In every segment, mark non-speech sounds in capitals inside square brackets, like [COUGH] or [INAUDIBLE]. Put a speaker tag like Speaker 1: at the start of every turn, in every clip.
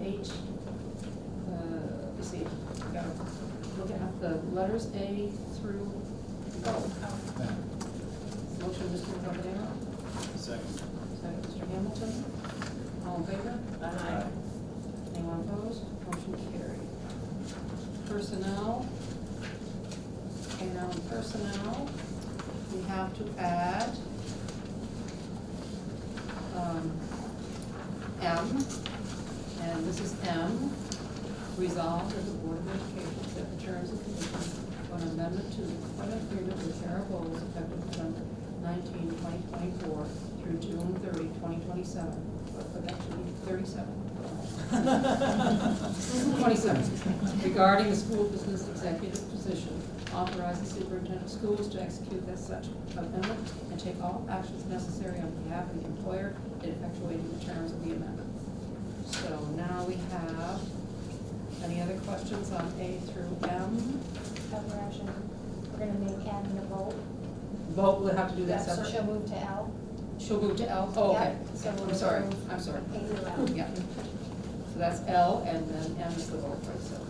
Speaker 1: H, uh, let's see, no, looking at the letters A through O. Motion, Mr. Romero,
Speaker 2: Second.
Speaker 1: [LAUGHS] second, Mr. Hamilton. All in favor?
Speaker 2: Aye.
Speaker 1: Anyone opposed? Motion carried. Personnel. And on personnel, we have to add um, M, and this is M, resolved that the Board of Education accept the terms and conditions on amendment to the employment agreement with Sarah Bowles effective November 19, 2024 through June 30, 2027. But but that should be 37. 27, regarding the school business executive position, authorize the superintendent of schools to execute as such amendment and take all actions necessary on behalf of the employer in effectuating the terms of the amendment. So now we have, any other questions on A through M?
Speaker 3: Governor Ashton, we're gonna make Adam the vote.
Speaker 1: Vote, we'll have to do that
Speaker 3: So
Speaker 1: separate.
Speaker 3: she'll move to L,
Speaker 1: She'll move to L, oh, okay.
Speaker 3: Yep, so
Speaker 1: I'm
Speaker 3: we'll
Speaker 1: sorry,
Speaker 3: move-
Speaker 1: I'm sorry.
Speaker 3: A through L.
Speaker 1: Yeah. So that's L, and then M is the vote for it, so.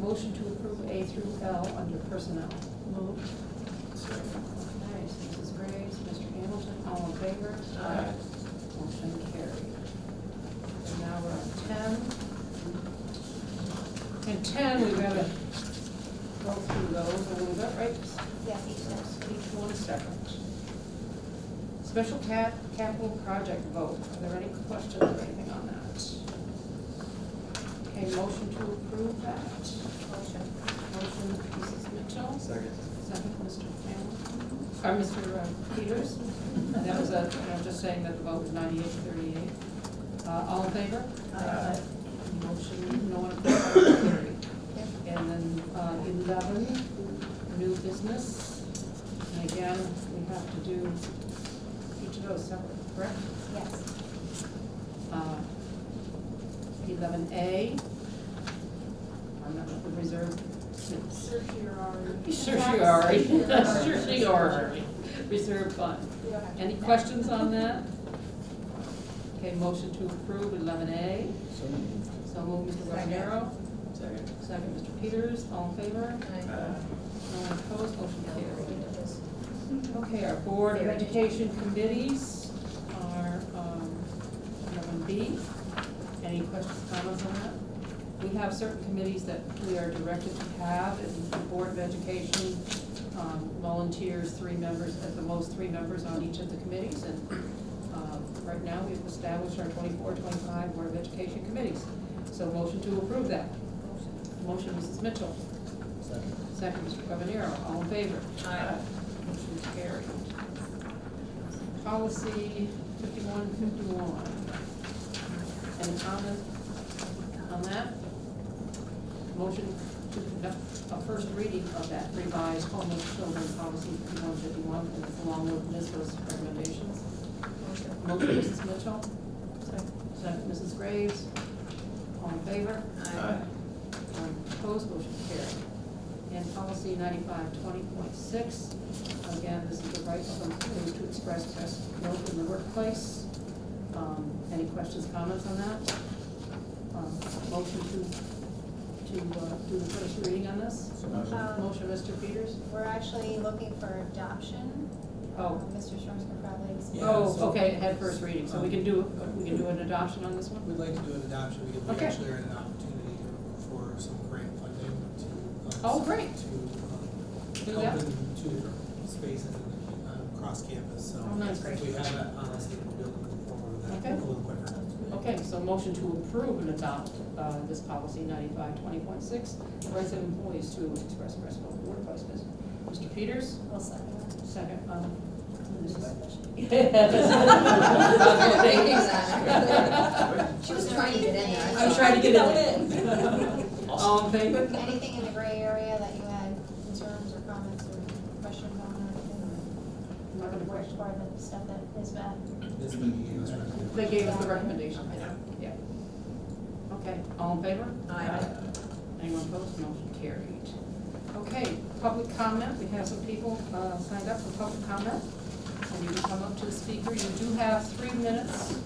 Speaker 1: Motion to approve A through L under personnel. Moved.
Speaker 2: Second.
Speaker 1: Nice, Mrs. Graves, Mr. Hamilton, all in favor?
Speaker 2: Aye.
Speaker 1: Motion carried. And now we're on ten. And ten, we gotta go through those a little bit, right?
Speaker 3: yes, each
Speaker 1: Yes,
Speaker 3: step.
Speaker 1: Each one separate. Special cap, capital project vote, are there any questions or anything on that? Okay, motion to approve that. Motion. Motion, Mrs. Mitchell,
Speaker 2: Second.
Speaker 1: second, Mr. Hamilton, or Mr. uh, Peters. And that was a, I'm just saying that the vote was ninety-eight to thirty-eight. Uh, all in favor?
Speaker 2: Aye.
Speaker 1: Motion, no one opposed, motion carried. And then uh, eleven, new business. And again, we have to do each of those separate, correct? Uh,
Speaker 3: Yes.
Speaker 1: Eleven A. I'm not with the reserve. Certiorari. Certiorari. Reserve fund.
Speaker 3: We don't have to
Speaker 1: Any
Speaker 3: do that.
Speaker 1: questions on that? Okay, motion to approve eleven A.
Speaker 2: So moved.
Speaker 1: So move, Mr. Romero.
Speaker 2: Second.
Speaker 1: Second, Mr. Peters, all in favor? No one opposed, motion carried. Okay, our Board of Education committees are, um, eleven B. Any questions, comments on that? We have certain committees that we are directed to have, and the Board of Education, um, volunteers three members, at the most, three members on each of the committees, and, um, right now, we've established our 24, 25 Board of Education committees. So motion to approve that. Motion, Mrs. Mitchell.
Speaker 2: Second.
Speaker 1: Second, Mr. Webanero, all in favor?
Speaker 2: Aye.
Speaker 1: Motion carried. Policy fifty-one fifty-one. Any comments on that? Motion to conduct a first reading of that revised homeless children policy fifty-one fifty-one, and it's along with NISBA's recommendations. Motion, Mrs. Mitchell? Second. Second, Mrs. Graves? All in favor?
Speaker 2: Aye.
Speaker 1: Um, Opposed, motion carried. And policy ninety-five twenty point six, again, this is the right of employees to express best note in the workplace. Um, Any questions, comments on that? Um, Motion to, to uh, do the first reading on this? Uh,
Speaker 2: So moved.
Speaker 3: Um,
Speaker 1: Motion, Mr. Peters?
Speaker 3: We're actually looking for adoption.
Speaker 1: Oh.
Speaker 3: Uh, Mr. Shor's gonna probably. explain.
Speaker 4: Yeah,
Speaker 1: Oh,
Speaker 4: so-
Speaker 1: okay, it had first reading, so we can do, we can do an adoption on this one?
Speaker 4: We'd like to do an adoption because we
Speaker 1: Okay.
Speaker 4: actually are in an opportunity for some grant funding to. uh,
Speaker 1: Oh, great.
Speaker 4: To
Speaker 1: Do
Speaker 4: um,
Speaker 1: that.
Speaker 4: help in two different spaces in the, uh, across campus, so.
Speaker 1: Oh, nice.
Speaker 4: If we have that, honestly, we'll be able to move forward with that
Speaker 1: Okay.
Speaker 4: a little quicker.
Speaker 1: Okay, so motion to approve and adopt uh, this policy ninety-five twenty point six, rights of employees to express breast milk workplace business. Mr. Peters,
Speaker 3: We'll second that.
Speaker 1: second, um, this is. [LAUGHS]
Speaker 5: She was trying to get in there.
Speaker 1: I'm trying to get it. All in favor?
Speaker 3: Anything in the gray area that you had concerns or comments or questions on or anything? Or the work department stuff that is bad?
Speaker 4: This will be used right now.
Speaker 1: They gave us the recommendation, yeah. Okay, all in favor? Anyone opposed? Motion carried. Okay, public comment, we have some people uh, signed up for public comment. And you can come up to the speaker, you do have three minutes